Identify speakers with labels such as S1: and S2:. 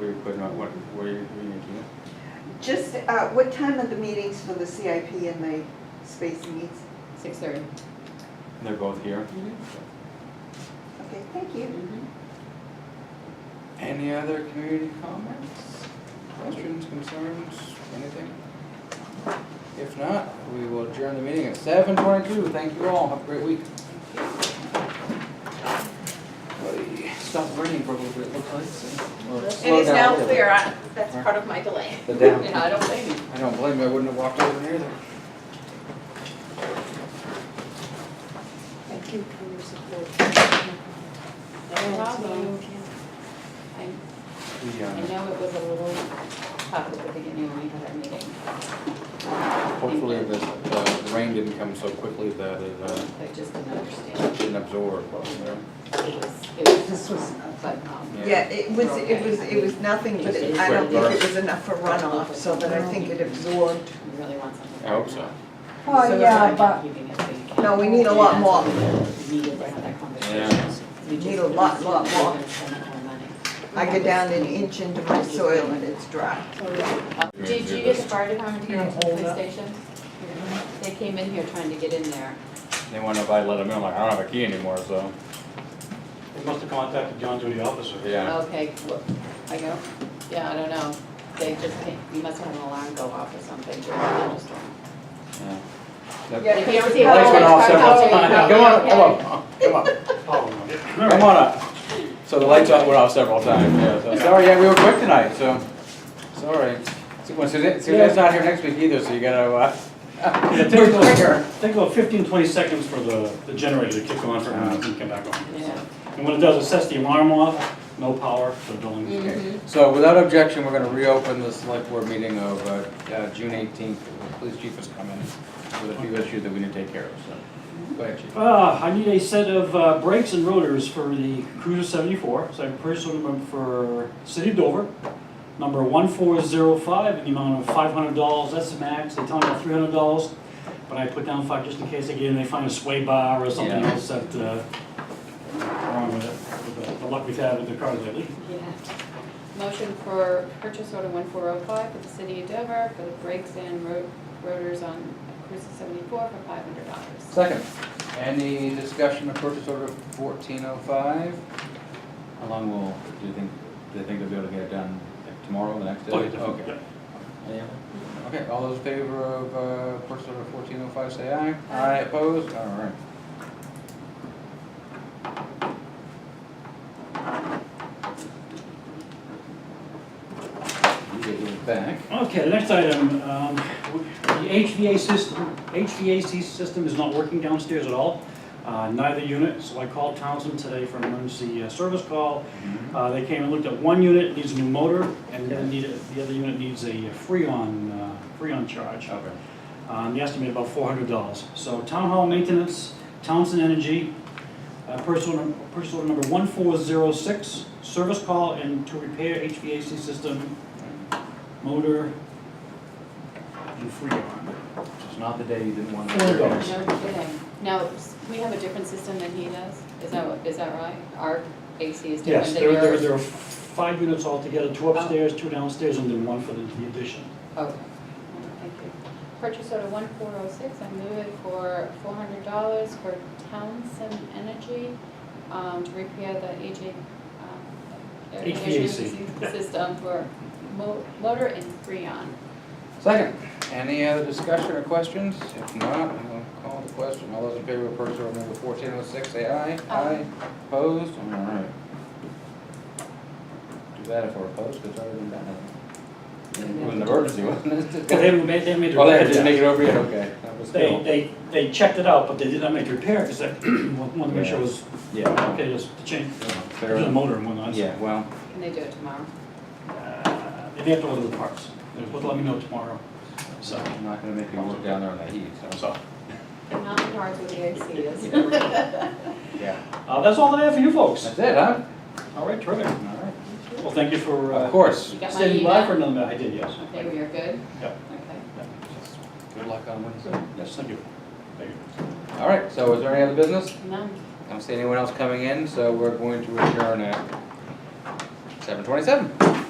S1: we were putting on, what, were you, were you making?
S2: Just, uh, what time are the meetings for the CIP and the space needs?
S3: Six thirty.
S1: They're both here. Mm-hmm.
S2: Okay, thank you.
S1: Any other community comments, questions, concerns, anything? If not, we will adjourn the meeting at seven twenty-two. Thank you all. Have a great week. Buddy, Stop running for a little bit, looks like, so. or
S3: It
S1: slow
S3: is
S1: down a
S3: now
S1: little bit.
S3: clear, I- that's part of my delay.
S1: The down.
S3: You know, I don't blame you.
S1: I don't blame you. I wouldn't have walked over here either.
S4: Thank you for your support.
S3: No problem. I
S1: The,
S3: I
S1: uh,
S3: know it was a little tough at the beginning when we had our meeting.
S1: Hopefully the, the the rain didn't come so quickly that it uh,
S3: I just didn't understand.
S1: didn't absorb, what was there.
S3: It was, it was
S2: This was,
S3: but, um,
S1: Yeah.
S2: yeah, it was, it was, it was nothing, but it- I don't think it was enough for runoff, so that I think it absorbed.
S3: you really want something.
S1: I hope so.
S3: So
S2: Oh,
S3: it's
S2: yeah,
S3: like
S2: but
S3: keeping it so you can-
S2: No, we need a lot more.
S3: We Needed to have that
S1: Yeah.
S3: conversation. We just
S2: Need a lot,
S3: didn't
S2: lot more.
S3: spend that kind of money.
S2: I get down an inch into my soil and it's dry.
S3: Did you get the fire department to get to the police station? They came in here trying to get in there.
S1: They wonder if I let them in, I'm like, I don't have a key anymore, so.
S5: They must have contacted John Duty officer.
S1: Yeah.
S3: Okay, wh- I go, yeah, I don't know. They just came, you must have had an alarm go off or something during the thunderstorm.
S1: yeah. That-
S2: Yeah,
S3: If Oh. you ever see a
S1: Lights went off
S3: fire
S1: several
S3: truck out
S1: times.
S3: there,
S1: Come
S3: you
S1: on, come
S3: probably okay.
S1: on, come on,
S5: Oh, no.
S1: come on up. So the lights went off several times, yeah, so, sorry, yeah, we were quick tonight, so, sorry. See, well, Suzanne, Suzanne's not here next week either, so you gotta, uh,
S5: Yeah,
S1: push the
S5: take
S1: trigger.
S5: Think about 15, 20 seconds for the, the generator to kick on for a
S1: Uh-huh.
S5: minute and come back on.
S3: Yeah.
S5: And when it does, it sets the alarm off, no power, so don't.
S1: Okay,
S3: Mm-hmm.
S1: So without objection, we're gonna reopen the select board meeting of, uh, uh, June eighteenth. The police chief is coming with a few issues that we need to take care of, so, go ahead, chief.
S5: Uh, I need a set of uh, brakes and rotors for the Cruiser 74, so I purchased them for City of Dover, number 1405, in the amount of $500, that's the max, they tell me about $300, but I put down five just in case, again, they find a sway bar or something
S1: Yeah.
S5: else that, uh, wrong with it, with the- the luck we've had with the cars lately.
S3: Yeah. Motion for purchase order one four oh five for the city of Dover for the brakes and ro- rotors on Cruiser seventy-four for five hundred dollars.
S1: Second, any discussion of purchase order fourteen oh five? How long will, do you think, do you think they'll be able to get it done like, tomorrow, the next day?
S5: Okay, definitely,
S1: Okay.
S5: Oh, yeah.
S1: Any other? Okay, all those in favor of, uh, purchase order fourteen oh five, say aye. Aye. Opposed? All right. You get yours back.
S5: Okay, the next item, um, the HVA system, HVAC system is not working downstairs at all, uh, neither unit, so I called Townsend today for an emergency uh, service call.
S1: Mm-hmm.
S5: Uh, They came and looked at one unit, needs a new motor, and the other need- the other unit needs a Freon, uh, Freon charge.
S1: Okay.
S5: Um, the estimate about four hundred dollars. So town hall maintenance, Townsend Energy, uh, purchase order, purchase order number one four zero six, service call and to repair HVAC system, motor, and freon.
S1: It's not the day you didn't want to.
S5: Four dollars.
S3: No kidding. Now, s- we have a different system than he does? Is that, what- is that right? Our AC is different
S5: Yes,
S3: than
S5: there,
S3: yours?
S5: there, there are five units altogether, two upstairs, two downstairs, and then one for the the addition.
S3: Okay, thank you. Purchase order one four oh six, I move it for four hundred dollars for Townsend Energy um, to repair the AJ, um, air conditioning
S5: HVAC.
S3: system for mo- motor and freon.
S1: Second, any other discussion or questions? If not, I'm gonna call the question. All those in favor of purchase order number fourteen oh six, say aye.
S3: Aye.
S1: Opposed? All right. Too bad if we're opposed, because I already got nothing. It was an emergency, wasn't
S5: Well, they
S1: it?
S5: haven't made, they haven't made the
S1: Well, they
S5: repair
S1: didn't make
S5: yet.
S1: it over yet, okay. That was
S5: They,
S1: still.
S5: they, they checked it out, but they did not make the repair, because they wanted to make sure it was,
S1: Yeah.
S5: okay, just to change,
S1: Fair
S5: the
S1: enough.
S5: motor and whatnot. so-
S1: Yeah, well,
S3: Can they do it tomorrow?
S5: Uh, They may have to order the parts. They're supposed to let me know tomorrow, so.
S1: I'm not gonna make you work down there in the heat, so.
S5: so.
S3: And not the parts where the AC is.
S1: Yeah.
S5: Uh, That's all that I have for you folks.
S1: That's it, huh?
S5: All right, terrific.
S1: All right.
S5: Well, thank you for
S1: Of
S5: uh,
S1: course.
S3: You got my
S5: standing by for
S3: email?
S5: another minute. I did, yes.
S3: Okay, we are good?
S5: Yep.
S3: Okay.
S1: Good luck on Wednesday.
S5: Yes, thank you. Thank you.
S1: All right, so is there any other business?
S3: None.
S1: I don't see anyone else coming in, so we're going to adjourn at seven twenty-seven.